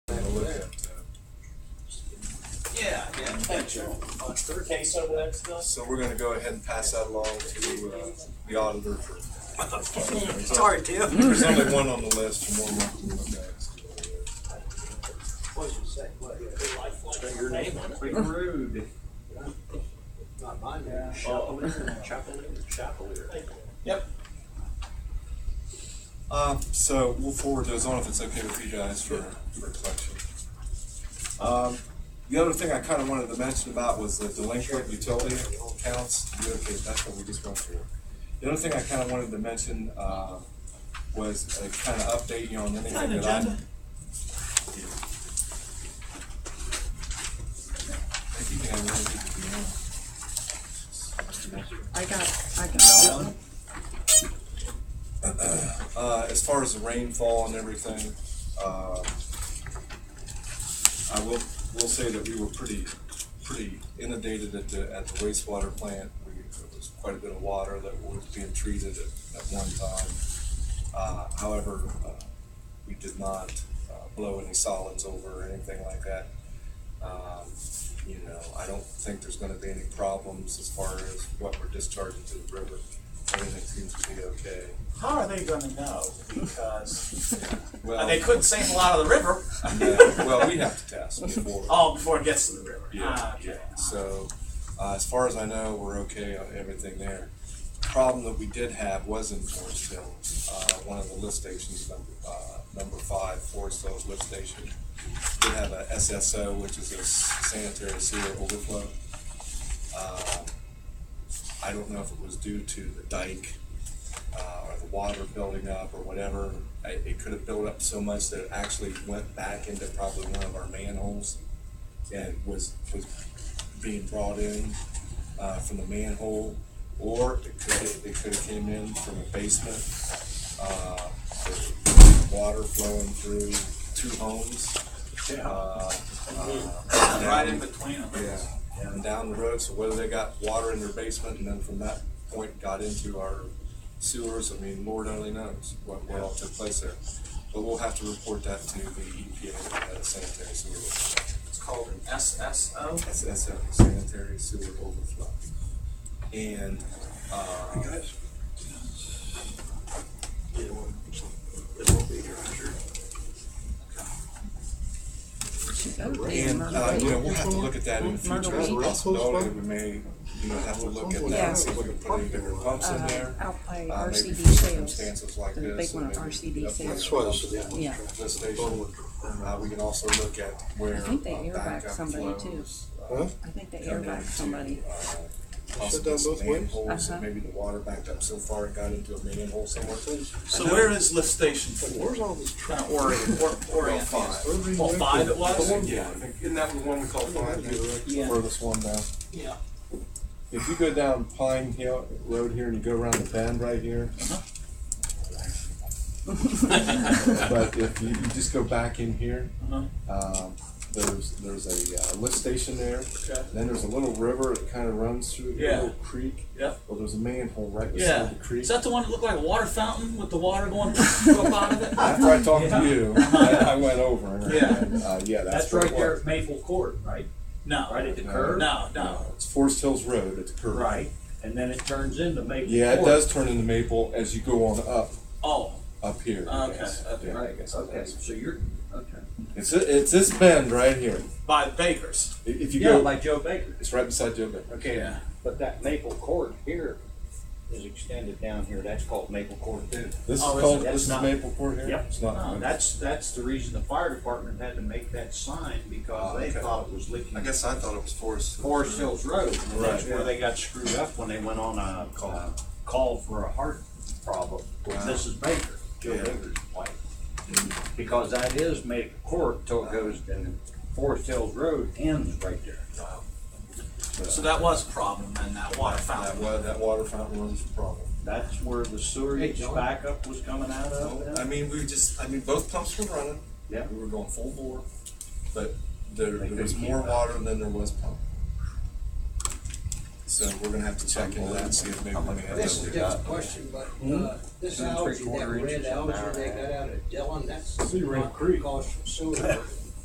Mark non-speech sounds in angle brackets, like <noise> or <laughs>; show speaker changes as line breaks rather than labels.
picture.
case over there still?
So we're gonna go ahead and pass that along to, uh, the auditor for.
Sorry, Tim.
There's only one on the list, and one left to look at.
What did you say? What, you have a lifeline?
Wait, rude.
Not mine, yeah.
Chapelier, Chapelier, Chapelier.
Uh, so we'll forward those on if it's okay with you guys for, for collection. Um, the other thing I kinda wanted to mention about was the delinquent utility accounts. You Okay, that's what we just went through. The other thing I kinda wanted to mention, uh, was uh, kinda update you on anything that I. Yeah. I think I really need to be on.
I got, I got.
<clears throat> Uh, as far as the rainfall and everything, uh, I will, will say that we were pretty, pretty inundated at the, at the wastewater plant. We, there was quite a bit of water that was being treated at, at one time. Uh, however, uh, we did not, uh, blow any solids over or anything like that. Um, you know, I don't think there's gonna be any problems as far as what we're discharging to the river. Everything seems to be okay.
How are they gonna know? <laughs> Because
Well,
they couldn't sample out of the <laughs> river,
yeah, well, we have to test before.
oh, before it gets to the river.
Yeah,
Ah, okay.
yeah. So, uh, as far as I know, we're okay on everything there. Problem that we did have was in Forest Hill, uh, one of the lift stations, number, uh, number five, Forest Hills lift station. We have a SSO, which is a s- sanitary sewer overflow. Uh, I don't know if it was due to the dike, uh, or the water building up or whatever. It, it could have built up so much that it actually went back into probably one of our manholes and was, was being brought in, uh, from the manhole, or it could, it could have came in from a basement, uh, with water flowing through two homes. Uh, uh,
Right in between them.
yeah, and down the road, so whether they got water in their basement and then from that point got into our sewers, I mean, Lord only knows what, what all took place there. But we'll have to report that to the EPA, uh, sanitary sewer,
It's called an SSO.
that's, that's a E, sanitary sewer overflow. And, uh, and, uh, you know, we'll have to look at that in the future as a possibility, we may, you know, have to look at that, and see if we can put any bigger pumps in there.
I'll pay
Uh, maybe
RCD
for
sales.
circumstances like
The
this.
big one,
maybe
RCD
up
sales.
here on
Yeah,
The station, uh, we can also look at where.
I think they
uh,
air back
backup
somebody too.
flows, uh,
I think they
come
air back
into,
somebody.
uh,
Shut down
Possible
both ways?
manholes,
Uh-huh.
and maybe the water backed up so far it got into a manhole somewhere.
So where is lift station four?
Where's all this
Kind
traffic?
of orient, or, orient.
five.
Every
Well,
way-
five it was?
Yeah, I think- isn't that the one we call Pine Hill?
Yeah.
Where this one now?
Yeah.
If you go down Pine Hill Road here and you go around the bend right here.
Uh-huh.
But if you, you just go back in here,
Uh-huh.
um, there's, there's a uh, lift station there.
Okay.
Then there's a little river that kind of runs through, a
Yeah.
little creek.
Yep.
Well, there's a manhole right
Yeah.
beside the creek.
Is that the one that looked like a water fountain with the water going <laughs> up out of it?
After I talked to
<laughs>
you, I I went over. and,
Yeah.
Uh, yeah, that's.
That's
where
right
it
there
was.
at Maple Court, right?
No.
Right at the
No.
curve?
No, no.
It's Forest Hills Road, it's a curve.
Right, and then it turns into Maple Court.
Yeah, it does turn into maple as you go on up,
Oh,
up here. I
Okay,
guess.
okay.
Yeah, I
Right,
guess it
okay,
is.
so you're, okay.
It's, thi- it's this bend right here.
by the Bakers.
I- If you
Yeah,
go,
by Joe Baker.
it's right beside Joe Beck.
Okay, but that Maple Court here is extended down here, that's called Maple Court too.
This is
Oh, is it-
called,
that's
this is
not-
Maple Court here?
Yep.
Oh,
Oh,
It's not.
No, that's, that's the reason the fire department had to make that sign,
Oh,
because they thought it was leaking.
I thought it was Forest.
Forest Hills Road, and that's
Right.
where they got screwed up when they went on a, uh, call for a heart problem with
Wow.
Mrs. Baker, Joe
Yeah.
Baker's wife. Because that is made court till it goes, and Forest Hills Road ends right there.
So that was a problem then, that water
That
fountain.
wa, that water fountain runs the problem.
That's where the sewage backup was coming out of.
I mean, we just, I mean, both pumps were running.
Yeah.
We were going full bore, but there,
They
there was
couldn't
more
keep
water than there was pump. So we're gonna have to check into that and see if maybe we may have.
This is
to-
just a question, but, uh, this
Two and
algae, that
three-quarter
red
inches an
algae
hour.
they got out of Dillon, that's
Sea Ring
not
Creek.
cost from sewer.